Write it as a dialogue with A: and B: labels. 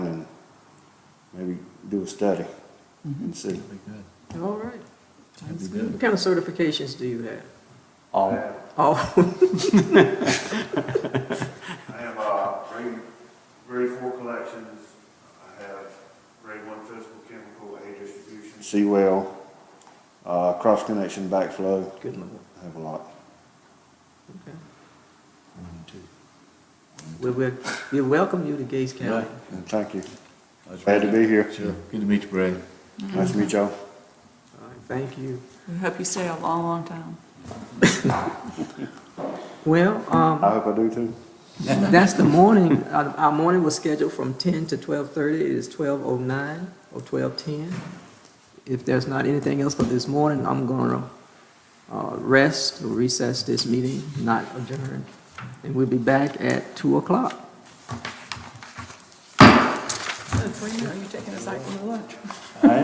A: do a study and see.
B: All right.
C: Sounds
B: What kind of certifications do you have?
A: All,
B: Oh,
D: I have, uh, grade, grade four collections, I have grade one physical chemical aid distribution,
A: seawell, uh, cross-connection backflow,
B: good lord.
A: I have a lot.
B: Okay. Well, we're, we welcome you to Gates County.
A: And Thank you. Glad to be here.
C: Sure, good to meet you, Brad.
A: Nice to meet y'all.
B: All right, Thank you.
E: We hope you stay a long, long time.
B: Well, um,
A: I hope I do too.
B: that's the morning, our, our morning was scheduled from ten to twelve-thirty, it is twelve-oh-nine or twelve-ten. If there's not anything else for this morning, I'm gonna, uh, rest or recess this meeting, not adjourn. And we'll be back at two o'clock.
E: Are you taking us out for lunch?
A: I